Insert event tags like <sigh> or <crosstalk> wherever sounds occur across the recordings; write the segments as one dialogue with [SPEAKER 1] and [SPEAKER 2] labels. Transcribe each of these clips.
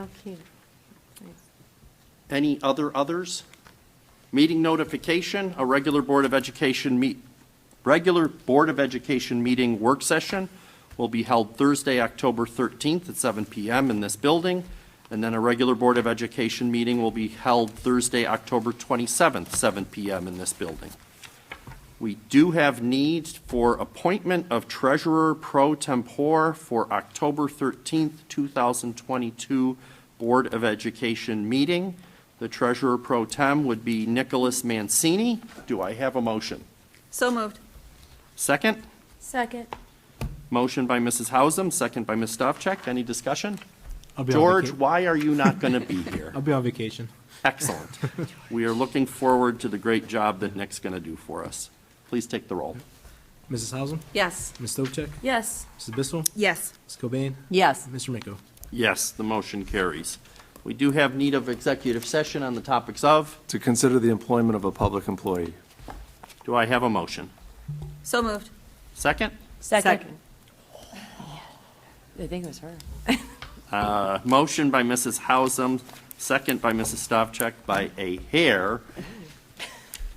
[SPEAKER 1] Okay. Nice.
[SPEAKER 2] Any other others? Meeting notification, a regular Board of Education meet, regular Board of Education meeting work session will be held Thursday, October 13th at 7 PM in this building, and then a regular Board of Education meeting will be held Thursday, October 27th, 7 PM in this building. We do have need for appointment of treasurer pro tempore for October 13th, 2022 Board of Education meeting. The treasurer pro tem would be Nicholas Mancini. Do I have a motion?
[SPEAKER 3] So moved.
[SPEAKER 2] Second?
[SPEAKER 1] Second.
[SPEAKER 2] Motion by Mrs. Hausum, second by Ms. Stavcek. Any discussion?
[SPEAKER 4] I'll be on
[SPEAKER 2] George,
[SPEAKER 4] vaca-
[SPEAKER 2] why are you not going to
[SPEAKER 4] <laughs>
[SPEAKER 2] be here?
[SPEAKER 4] I'll be on vacation.
[SPEAKER 2] Excellent. We are looking forward to the great job that Nick's going to do for us. Please take the roll.
[SPEAKER 4] Mrs. Hausum,
[SPEAKER 3] Yes.
[SPEAKER 4] Ms. Stovcek,
[SPEAKER 1] Yes.
[SPEAKER 4] Mrs. Bissell,
[SPEAKER 3] Yes.
[SPEAKER 4] Ms. Cobain,
[SPEAKER 3] Yes.
[SPEAKER 4] Mr. Miko.
[SPEAKER 2] Yes, the motion carries. We do have need of executive session on the topics of,
[SPEAKER 5] to consider the employment of a public employee.
[SPEAKER 2] do I have a motion?
[SPEAKER 3] So moved.
[SPEAKER 2] Second?
[SPEAKER 3] Second.
[SPEAKER 1] I think it was her.
[SPEAKER 2] Uh, Motion by Mrs. Hausum, second by Mrs. Stavcek by a hair.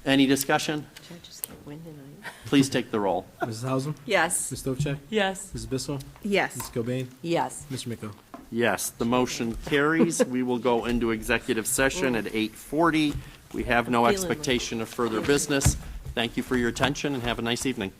[SPEAKER 2] Any discussion?
[SPEAKER 1] Judges can't win tonight.
[SPEAKER 2] Please take the roll.
[SPEAKER 4] Mrs. Hausum,
[SPEAKER 3] Yes.
[SPEAKER 4] Ms. Stovcek,
[SPEAKER 1] Yes.
[SPEAKER 4] Mrs. Bissell, Ms.
[SPEAKER 3] Yes.
[SPEAKER 4] Cobain,
[SPEAKER 1] Yes.
[SPEAKER 4] Mr. Miko.
[SPEAKER 2] Yes, the motion carries. We will go into executive session at 8:40. We have no
[SPEAKER 1] Feeling like-
[SPEAKER 2] expectation of further business. Thank you for your attention and have a nice evening.